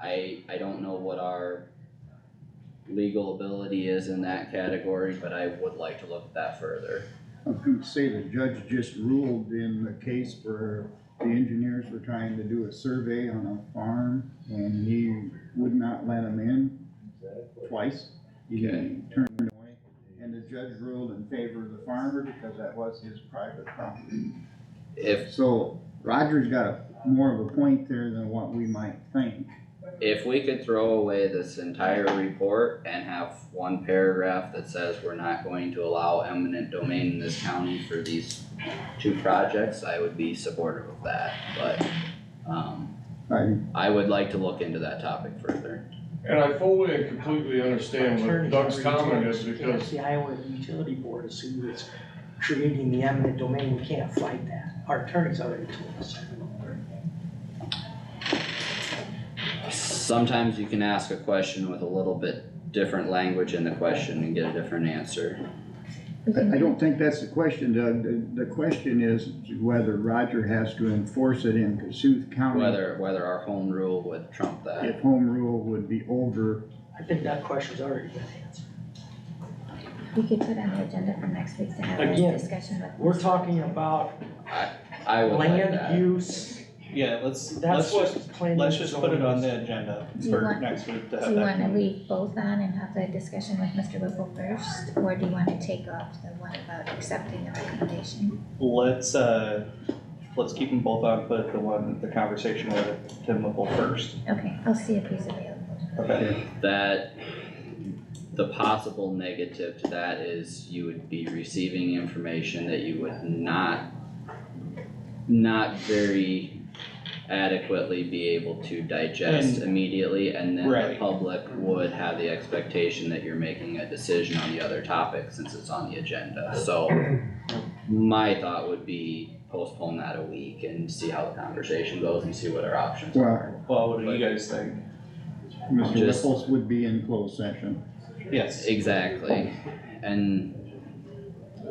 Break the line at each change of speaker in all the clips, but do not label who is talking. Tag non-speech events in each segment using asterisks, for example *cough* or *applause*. I, I don't know what our legal ability is in that category, but I would like to look at that further.
You say the judge just ruled in the case where the engineers were trying to do a survey on a farm and he would not let them in twice. He
Okay.
turned it away, and the judge ruled in favor of the farmer because that was his private property.
If,
So Roger's got a- more of a point there than what we might think.
if we could throw away this entire report and have one paragraph that says we're not going to allow eminent domain in this county for these two projects, I would be supportive of that, but, um,
I,
I would like to look into that topic further.
And I fully and completely understand what
Attorneys
Doug's
are
comment
utilities.
is
You can't-
because
The Iowa Utility Board is who is creating the eminent domain, we can't fight that, our attorneys already told us.
Sometimes you can ask a question with a little bit different language in the question and get a different answer.
Mhm.
I I don't think that's the question, Doug. The, the question is whether Roger has to enforce it in Cassuth County.
Whether, whether our home rule would trump that.
If home rule would be over
I think that question's already been answered.
We could put on the agenda for next week to have a
Again,
discussion with.
We're talking about
I would like
land
that.
use,
Yeah, let's,
that's
let's just,
what planning.
let's just put it on the agenda
Do you
for
want-
next week to
Do
have
you
that.
wanna leave both on and have the discussion with Mr. Whipple first, or do you wanna take off the one about accepting the recommendation?
Let's, uh, let's keep them both on, but the one, the conversation with Tim Whipple first.
Mm-hmm.
Okay, I'll see if he's available.
Okay.
That, the possible negative to that is you would be receiving information that you would not, not very adequately be able to digest immediately, and then the
Right.
public would have the expectation that you're making a decision on the other topic since it's on the agenda, so. My thought would be postpone that a week and see how the conversation goes and see what our options are.
Well, what do you guys think?
Mr.
Just-
Whipples would be in closed session.
Yes.
Exactly, and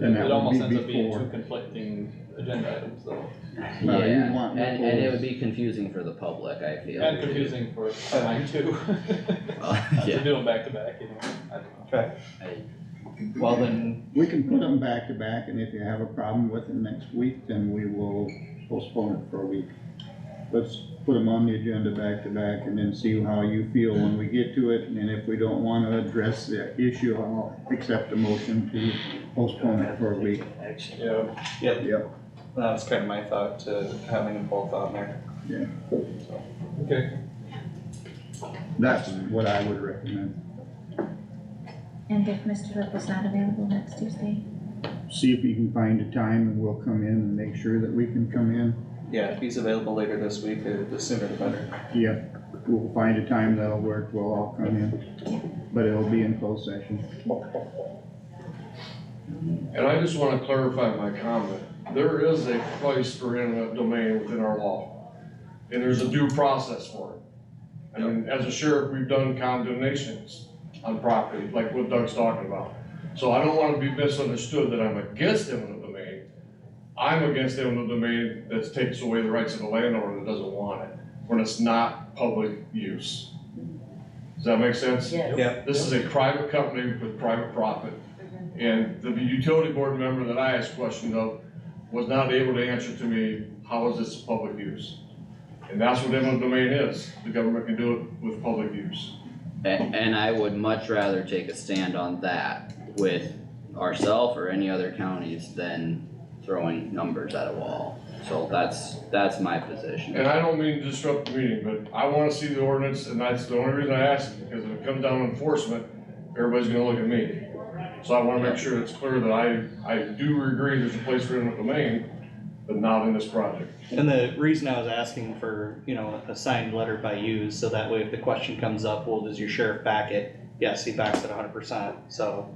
And that
It
would
almost
be
ends up being
before.
two conflicting agenda items though,
you
yeah,
want
and, and it
Nicole's-
would be confusing for the public, I feel.
and confusing for mine too. *laughs* Not
*laughs* Yeah,
To do them back to back, you know, I don't know.
Okay, well then,
We can put them back to back and if you have a problem with it next week, then we will postpone it for a week. Let's put them on the agenda back to back and then see how you feel when we get to it. And if we don't wanna address the issue, I'll accept the motion to postpone it for a week.
Yeah,
yep,
Yep.
that's kind of my thought to having them both on there.
okay,
That's what I would recommend.
And if Mr. Whipple's not available next Tuesday,
See if you can find a time and we'll come in and make sure that we can come in.
Yeah, if he's available later this week, uh, the sooner the better.
Yep, we'll find a time that'll work, we'll all come in, but it'll be in closed session.
And I just wanna clarify my comment. There is a place for eminent domain within our law. And there's a due process for it. I mean, as a sheriff, we've done condemnations on property, like what Doug's talking about. So I don't wanna be misunderstood that I'm against eminent domain. I'm against eminent domain that takes away the rights of the landowner that doesn't want it, when it's not public use. Does that make sense?
Yeah.
This is a private company with private profit. And the utility board member that I asked questions of was not able to answer to me, how is this public use? And that's what eminent domain is. The government can do it with public use.
and, and I would much rather take a stand on that with ourself or any other counties than throwing numbers at a wall. So that's, that's my position.
And I don't mean to disrupt the meeting, but I wanna see the ordinance, and that's the only reason I asked, because if it comes down to enforcement, everybody's gonna look at me. So I wanna make sure it's clear that I, I do agree there's a place for eminent domain, but not in this project.
And the reason I was asking for, you know, a signed letter by you, is so that way if the question comes up, well, does your sheriff back it? Yes, he backs it hundred percent, so,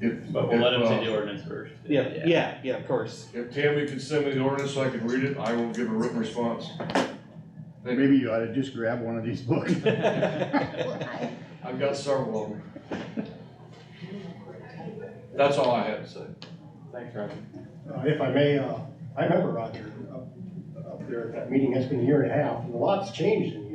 If-
but we'll let
if,
him
uh,
see the ordinance first.
yeah, yeah, yeah, of
*laughs*
course. *laughs*
If Tammy could send me the ordinance so I could read it, I will give a written response. Thank-
Maybe you ought to just grab one of these books.
Uh,
*laughs*
well, I,
I've got several of them. That's all I had to say.
Thanks, Roger.
Uh, If I may, uh, I remember Roger up up there at that meeting, it's been a year and a half, and a lot's changed in